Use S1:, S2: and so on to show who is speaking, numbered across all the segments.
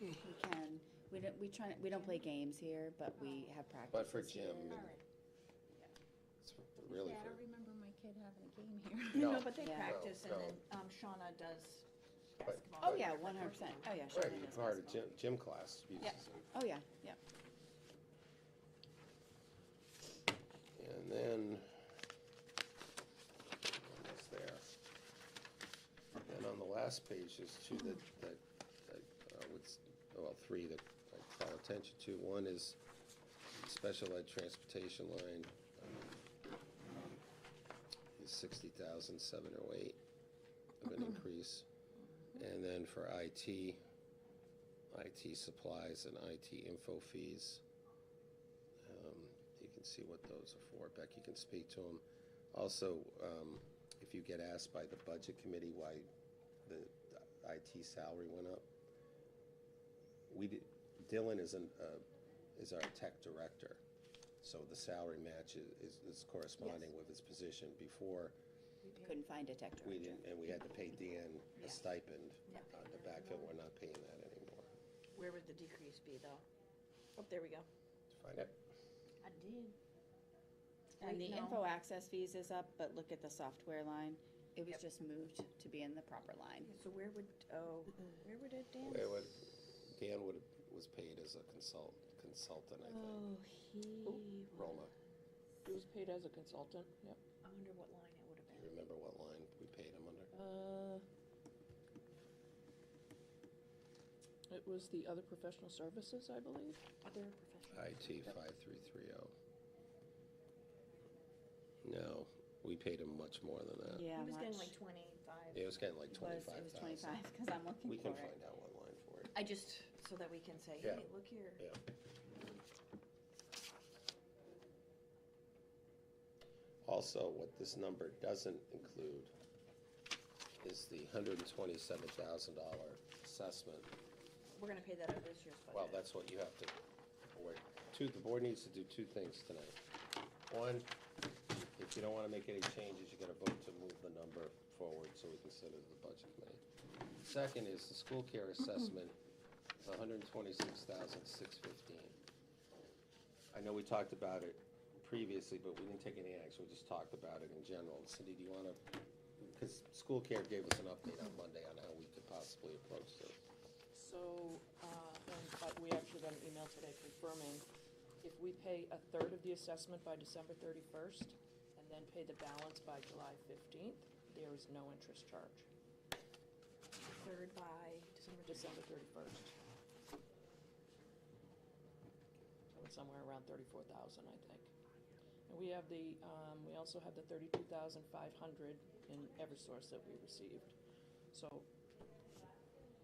S1: We can, we don't, we try, we don't play games here, but we have practice.
S2: But for gym,
S3: All
S2: and
S3: right.
S2: it's really
S3: Yeah, I don't
S2: for,
S3: remember my kid having a game here.
S2: No.
S4: No, but they
S1: Yeah.
S4: practice and
S2: No,
S4: then um, Shauna does
S2: Right.
S4: basketball.
S1: Oh, yeah, one hundred percent. Oh, yeah, sure.
S2: right, you're part of gym, gym class. uses
S4: Yeah.
S2: it.
S1: Oh, yeah, yeah.
S2: And then, almost there. And on the last page, there's two that, that, I, uh, would s- well, three that I call attention to. One is special ed transportation line, um, is sixty thousand, seven oh eight of an increase. And then for IT, IT supplies and IT info fees. Um, You can see what those are for. Becky can speak to them. Also, um, if you get asked by the budget committee why the IT salary went up, we did, Dylan is an, uh, is our tech director. So the salary match is- is, is corresponding with his position. Before,
S1: Couldn't find a tech
S2: we
S1: director.
S2: didn't, and we had to pay Dan
S4: Yeah.
S2: a stipend
S4: Yeah.
S2: on the backfill. We're not paying that anymore.
S4: Where would the decrease be though? Oh, there we go.
S2: Find out.
S4: I did.
S1: And the
S4: No.
S1: info access fees is up, but look at the software line. It was
S4: Yep.
S1: just moved to be in the proper line.
S4: Yeah, So where would, oh, where would it dance?
S2: It would, Dan would, was paid as a consult, consultant, I think,
S4: Oh, he.
S1: Oh.
S2: Roma.
S5: He was paid as a consultant, yep.
S4: I wonder what line it would have
S2: Do you remember what line we paid him under?
S5: Uh, It was the other professional services, I believe.
S4: been. Other professional.
S2: IT five three three oh. No, we paid him much more than that.
S1: Yeah,
S4: He was
S1: much.
S4: getting like twenty-five.
S2: It was getting like
S1: It was, it
S2: twenty-five
S1: was
S2: thousand.
S1: twenty-five, because I'm
S2: We
S1: looking for
S2: can
S1: it.
S2: find out what line for it.
S4: I just, so that we can say,
S2: Yeah.
S4: hey, look here.
S2: Yeah. Also, what this number doesn't include is the hundred and twenty-seven thousand dollar assessment
S4: We're gonna pay that out of this year's budget.
S2: Well, that's what you have to, work. two, the board needs to do two things tonight. One, if you don't wanna make any changes, you gotta vote to move the number forward so we can send it to the budget committee. Second is the school care assessment, is $126,615. I know we talked about it previously, but we didn't take any action, we just talked about it in general. Cindy, do you wanna, cause school care gave us an update on Monday on how we could possibly approach this.
S5: So, uh, and, but we actually got an email today confirming if we pay a third of the assessment by December thirty-first and then pay the balance by July fifteenth, there is no interest charge,
S4: Third by December.
S5: December thirty-first. So it's somewhere around thirty-four thousand, I think. And we have the, um, we also have the thirty-two thousand five hundred in Eversource that we received. So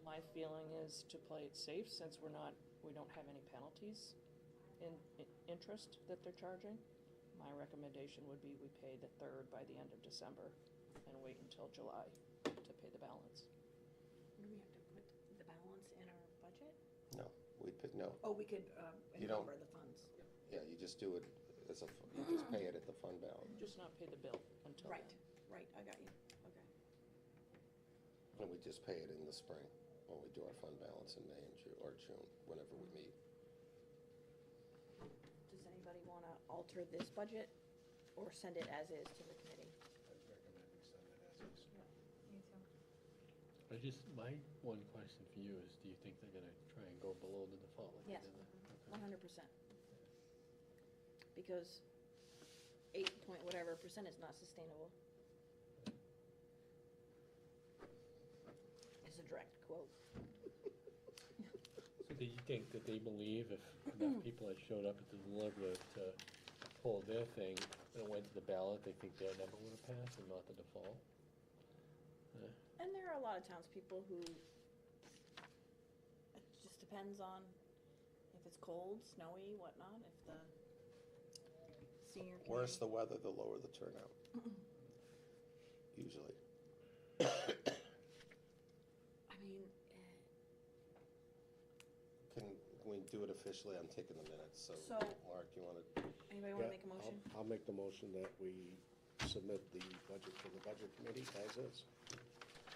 S5: my feeling is to play it safe since we're not, we don't have any penalties in, in interest that they're charging. My recommendation would be we pay the third by the end of December and wait until July to pay the balance.
S4: Do we have to put the balance in our budget?
S2: No, we put, no,
S4: Oh, we could, uh,
S2: You don't-
S4: encumber the funds.
S2: Yeah, you just do it as a, fu- you just pay it at the fund balance,
S5: Just not pay the bill until then.
S4: Right, right, I got you, okay.
S2: and we just pay it in the spring, when we do our fund balance in May and Ju, or June, whenever we meet.
S4: Does anybody wanna alter this budget or send it as is to the committee?
S6: I just, my one question for you is, do you think they're gonna try and go below the default like they
S4: Yes.
S6: did the-
S4: One hundred percent. Because eight point whatever percent is not sustainable. It's a direct quote.
S6: So do you think that they believe if enough people had showed up at the deliberative to pull their thing and it went to the ballot, they think their number would have passed and not the default?
S4: And there are a lot of townspeople who, it just depends on if it's cold, snowy, whatnot, if the senior.
S2: Worse
S4: committee-
S2: the weather, the lower the turnout. Usually.
S4: I mean, eh,
S2: Can, we do it officially? I'm taking the minutes, so,
S4: So-
S2: Mark, you wanna,
S4: anybody wanna
S7: Yeah,
S4: make a
S7: I'll-
S4: motion?
S7: I'll make the motion that we submit the budget to the budget committee as is.